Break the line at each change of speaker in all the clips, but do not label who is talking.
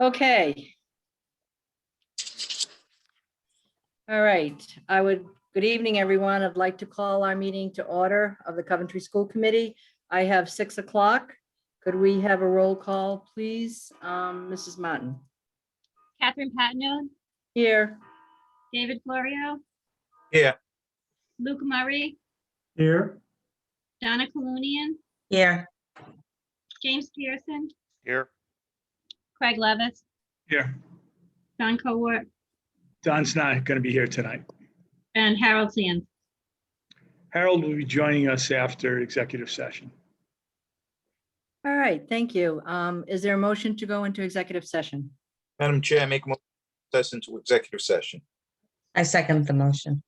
Okay. All right, I would, good evening, everyone. I'd like to call our meeting to order of the Coventry School Committee. I have six o'clock. Could we have a roll call, please? Um, Mrs. Martin,
Catherine Patino,
here.
David Florio.
Here.
Luke Murray,
Here,
Donna Colunian,
Here,
James Pearson,
Here.
Craig Levis,
here.
John Cowart,
Don's not going to be here tonight.
and Harold Sands.
Harold will be joining us after executive session.
All right, thank you. Um, is there a motion to go into executive session?
Madam Chair, I make a motion to recess into executive session.
I second the motion.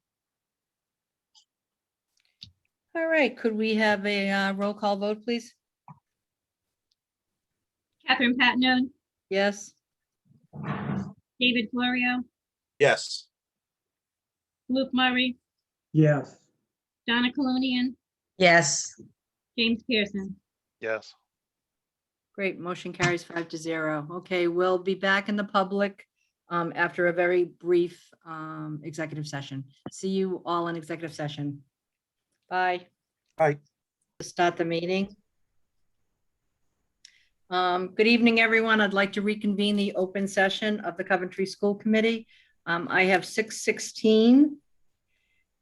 All right, could we have a uh, roll call vote, please?
Catherine Patino,
Yes,
David Florio,
Yes.
Luke Murray,
Yes.
Donna Colunian,
Yes,
James Pearson.
Yes.
great. Motion carries five to zero. Okay, we'll be back in the public um, after a very brief um, executive session. See you all in executive session. Bye.
Bye.
Start the meeting. Um, Good evening, everyone. I'd like to reconvene the open session of the Coventry School Committee. Um, I have 6:16.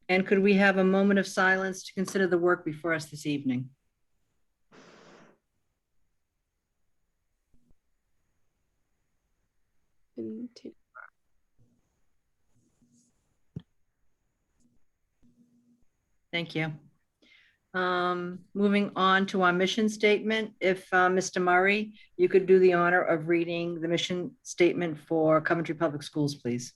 And could we have a moment of silence to consider the work before us this evening?
and take
Thank you. Um, Moving on to our mission statement, if uh, Mr. Murray, you could do the honor of reading the mission statement for Coventry Public Schools, please.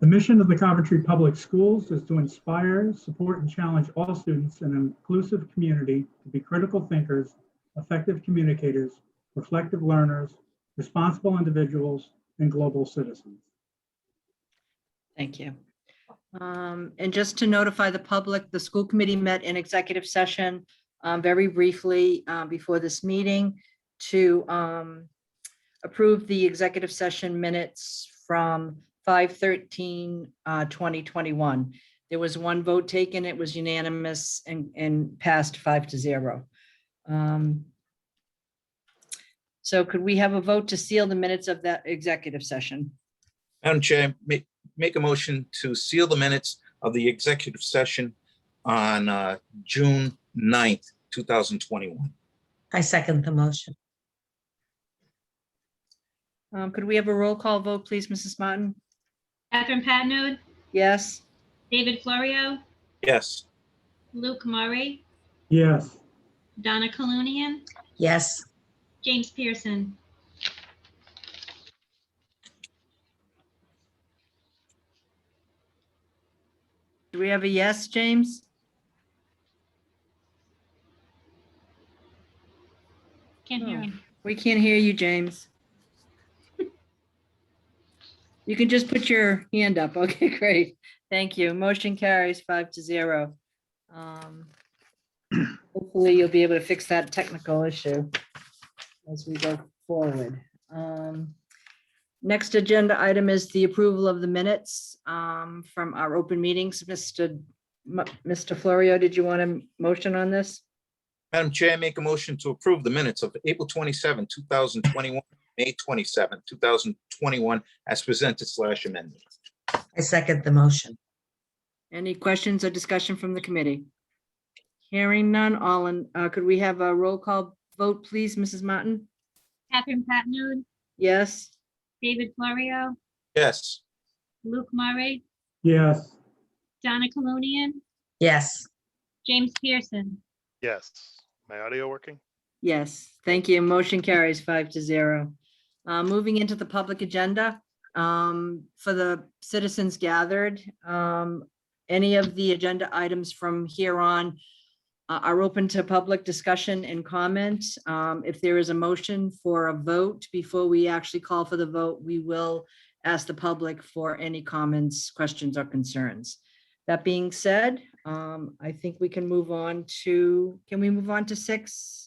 The mission of the Coventry Public Schools is to inspire, support, and challenge all students in an inclusive community to be critical thinkers, effective communicators, reflective learners, responsible individuals, and global citizens.
Thank you. Um, And just to notify the public, the school committee met in executive session um, very briefly uh, before this meeting to um, approve the executive session minutes from 5/13, uh, 2021. There was one vote taken, it was unanimous and, and passed five to zero. Um, So could we have a vote to seal the minutes of that executive session?
Madam Chair, make, make a motion to seal the minutes of the executive session on uh, June 9th, two thousand twenty-one.
I second the motion.
Um, Could we have a roll call vote, please, Mrs. Martin?
Catherine Patino,
Yes,
David Florio,
Yes.
Luke Murray,
Yes,
Donna Colunian,
Yes,
James Pearson.
do we have a yes, James?
Can't hear
Oh.
him.
We can't hear you, James. You can just put your hand up. Okay, great. Thank you. Motion carries five to zero. Um, Hopefully you'll be able to fix that technical issue as we go forward. Um, Next agenda item is the approval of the minutes um, from our open meetings. Mr. M- Mr. Florio, did you want a motion on this?
Madam Chair, make a motion to approve the minutes of April 27, thousand twenty-one, May 27, thousand twenty-one, as presented slash amended.
I second the motion.
Any questions or discussion from the committee? Hearing none, all in, uh, could we have a roll call vote, please, Mrs. Martin?
Catherine Patino,
Yes,
David Florio,
Yes.
Luke Murray,
yes,
Donna Colunian,
Yes,
James Pearson.
Yes. My audio working?
yes, thank you. Motion carries five to zero. Uh, moving into the public agenda, um, for the citizens gathered, um, any of the agenda items from here on uh, are open to public discussion and comment. Um, if there is a motion for a vote, before we actually call for the vote, we will ask the public for any comments, questions, or concerns. That being said, um, I think we can move on to, can we move on to six?